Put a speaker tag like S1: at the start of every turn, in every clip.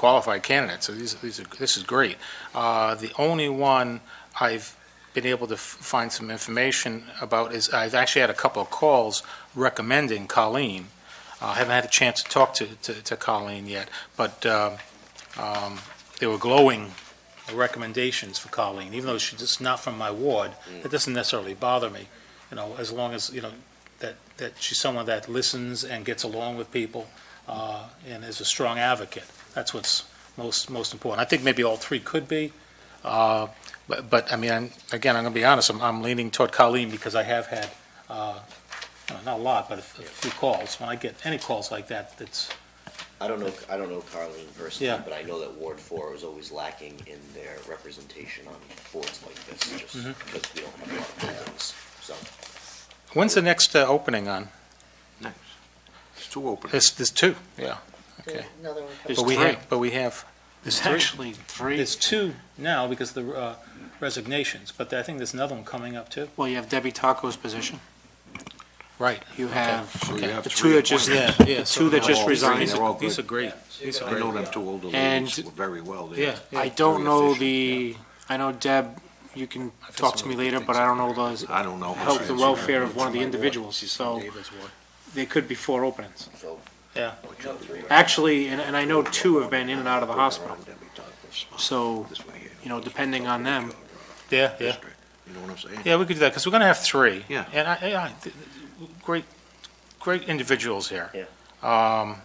S1: qualified candidates, so these, these are, this is great. Uh, The only one I've been able to f- find some information about is, I've actually had a couple of calls recommending Colleen. Uh, I haven't had a chance to talk to, to to Colleen yet, but um, um, they were glowing recommendations for Colleen, even though she's just not from my ward, that doesn't necessarily bother me, you know, as long as, you know, that, that she's someone that listens and gets along with people uh, and is a strong advocate. That's what's most, most important. I think maybe all three could be, uh, but, but, I mean, I'm- again, I'm going to be honest, I'm, I'm leaning toward Colleen because I have had, uh, no, not a lot, but a f- a few calls. When I get any calls like that, it's,
S2: I don't know, I don't know Carleen personally,
S1: Yeah.
S2: but I know that Ward Four was always lacking in their representation on boards like this, just
S1: Mm-hmm.
S2: because we don't have a lot of buildings, so.
S1: when's the next uh, opening on?
S3: Next. It's two openings.
S1: There's, there's two, yeah, okay.
S4: Another one
S3: There's
S1: But we
S3: three.
S1: have, but we have
S3: There's
S1: three.
S3: actually three.
S1: There's two now because of the uh, resignations, but I think there's another one coming up too.
S5: Well, you have Debbie Taco's position.
S1: Right.
S5: You have
S3: So you have
S5: the
S3: three
S5: two that just,
S1: Yeah,
S3: appointments.
S1: yeah.
S5: the two that
S3: They're
S5: just
S3: all
S5: resigned.
S3: three, they're all good.
S1: These are great. These
S3: I
S1: are
S3: know
S1: great.
S3: them two older
S5: And-
S3: ladies very well. They're-
S1: Yeah, yeah.
S5: I don't know
S3: Very
S5: the, I know Deb, you can
S1: I've
S5: talk
S1: just
S5: to me
S1: heard
S5: later,
S1: good
S5: but I don't know those,
S3: I don't know.
S5: health and welfare of one of the individuals, so there could be four openings.
S2: So,
S1: Yeah.
S5: Actually, and, and I know two have been in and out of the hospital, so,
S3: This way here.
S5: you know, depending on them.
S1: Yeah, yeah.
S3: You know what I'm saying?
S1: Yeah, we could do that because we're going to have three.
S3: Yeah.
S1: And I, I, I- th- great, great individuals here.
S2: Yeah.
S1: Um,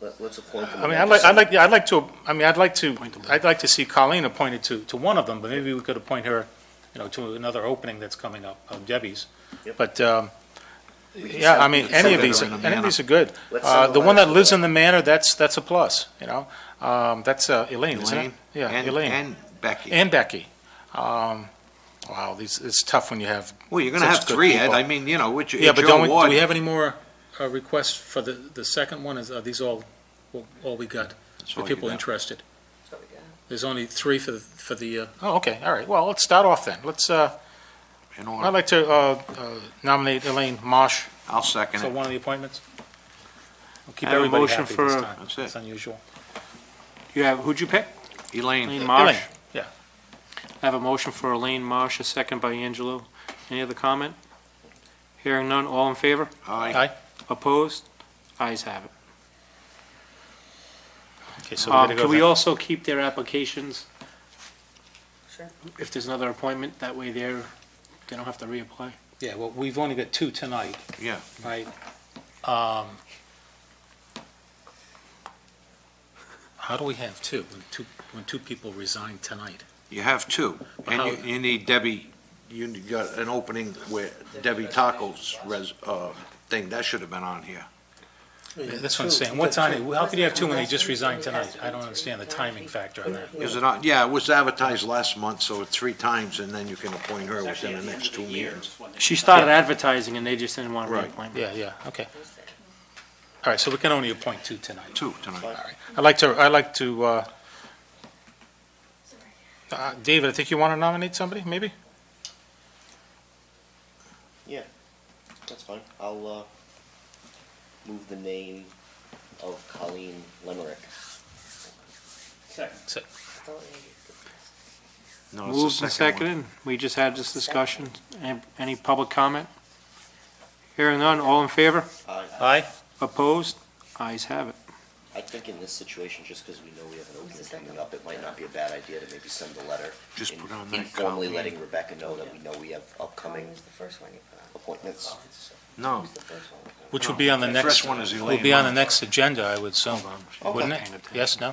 S2: let, let's appoint them.
S1: I mean,
S2: and
S1: I'd like, I'd
S2: then
S1: like, I'd like to, I mean, I'd like to,
S5: Appoint them.
S1: I'd like to see Colleen appointed to, to one of them, but maybe we could appoint her, you know, to another opening that's coming up, of Debbie's.
S2: Yep.
S1: But, um,
S2: can
S1: yeah,
S2: send-
S1: I mean,
S3: we can
S1: any
S3: send
S1: of
S3: her
S1: these,
S3: in the
S1: any of
S3: manor.
S1: these are good.
S2: Let's
S1: Uh,
S2: send
S1: The
S2: a
S1: one that
S2: letter.
S1: lives in the manor, that's, that's a plus, you know? Um, That's uh, Elaine, isn't it?
S3: Elaine?
S1: Yeah,
S3: and-
S1: Elaine.
S3: And Becky.
S1: And Becky. Um, Wow, these, it's tough when you have,
S3: Well, you're gonna
S1: Such
S3: have
S1: good
S3: three, Ed.
S1: people.
S3: I mean, you know, which,
S1: yeah,
S3: it's
S1: but don't,
S3: your
S1: we- do
S3: ward.
S1: we have any more uh, requests for the, the second one? Is, are these all, all we got?
S3: That's
S1: The
S3: all you
S1: people
S3: got.
S1: interested?
S4: that's what we got.
S1: There's only three for the, for the, uh, oh, okay, all right. Well, let's start off then. Let's, uh,
S3: In
S1: I'd
S3: order.
S1: like to uh, uh, nominate Elaine Marsh
S3: I'll second
S1: for
S3: it.
S1: one of the appointments. We'll Keep
S5: I have a
S1: everybody
S5: motion
S1: happy this
S5: for-
S1: time.
S3: That's it.
S1: It's unusual.
S5: You have, who'd you pick? Elaine
S3: Elaine,
S5: Marsh?
S1: Elaine, yeah.
S5: I have a motion for Elaine Marsh, a second by Angelo. Any other comment? Hearing none, all in favor?
S3: aye.
S1: Aye?
S5: Opposed? Ayes have it.
S1: Okay, so we're
S5: Um,
S1: gonna go
S5: Can we
S1: then.
S5: also keep their applications?
S4: Sure.
S5: If there's another appointment, that way they're, they don't have to reapply.
S1: Yeah, well, we've only got two tonight.
S3: Yeah.
S1: Right. Um, How do we have two, when two, when two people resign tonight?
S3: You have two, and
S1: How-
S3: you, you need Debbie, you need- got an opening where Debbie Taco's res, uh, thing, that should have been on here.
S1: That's what I'm saying, what's on it, how could you have two when they just resigned tonight? I don't understand the timing factor on that.
S3: Is it on, yeah, it was advertised last month, so it's three times, and then you can appoint her within the next two meetings.
S5: She started advertising and they just didn't want to
S3: Right.
S5: reapply.
S1: Yeah, yeah, okay. All right, so we can only appoint two tonight.
S3: Two
S1: All
S3: tonight.
S1: right, I'd like to, I'd like to, uh, uh, David, I think you want to nominate somebody, maybe?
S2: That's fine, I'll, uh, move the name of Colleen Lemerick.
S1: So-
S4: Don't need
S3: No, it's the
S5: Moved
S3: second one.
S5: and seconded, we just had this discussion. Any- Any public comment? Hearing none, all in favor?
S2: I,
S1: Aye?
S5: Opposed? Ayes have it.
S2: I think in this situation, just because we know we have an opening
S4: second
S2: coming up, it might not be a bad idea to maybe send a letter.
S3: Just
S2: in-
S3: put on that
S2: Informally
S3: Colleen.
S2: letting Rebecca know that we know we have upcoming
S4: Colleen's Oh, the first one you put on.
S2: appointments.
S3: No,
S4: Who's the first one? we
S1: Which would be on the
S3: The
S1: next.
S3: first one is
S1: Would
S3: Elaine
S1: be on the
S3: Marsh.
S1: next agenda, I would assume, wouldn't it? Yes, no?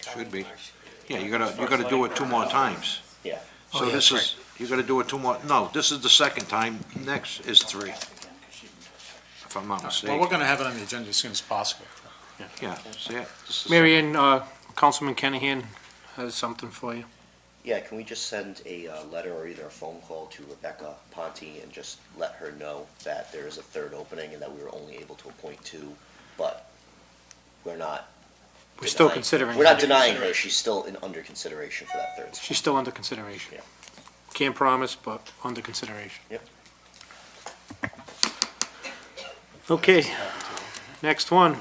S4: put on?
S3: Should be.
S4: Colleen's first.
S3: yeah, you gotta, you gotta do it two more times.
S2: Yeah.
S1: Oh,
S3: So
S1: yeah,
S3: this
S1: that's
S3: is, you gotta do it two more, no, this is the second time, next is three. If I'm
S1: Well,
S3: not
S1: we're
S3: mistaken,
S1: going to have it on the agenda as soon as possible.
S3: yeah, see it? This is-
S5: Mary Ann, uh, Councilman Kennahan has something for you.
S2: Yeah, can we just send a uh, letter or either a phone call to Rebecca Ponte and just let her know that there is a third opening and that we were only able to appoint two, but we're not.
S5: We're still
S2: denying-
S5: considering.
S2: We're not
S5: her.
S2: denying her, she's still in, under consideration for that third.
S5: She's still under consideration.
S2: Yeah.
S5: Can't promise, but under consideration.
S2: Yep.
S5: Okay, next one.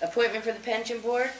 S4: Appointment for the pension board,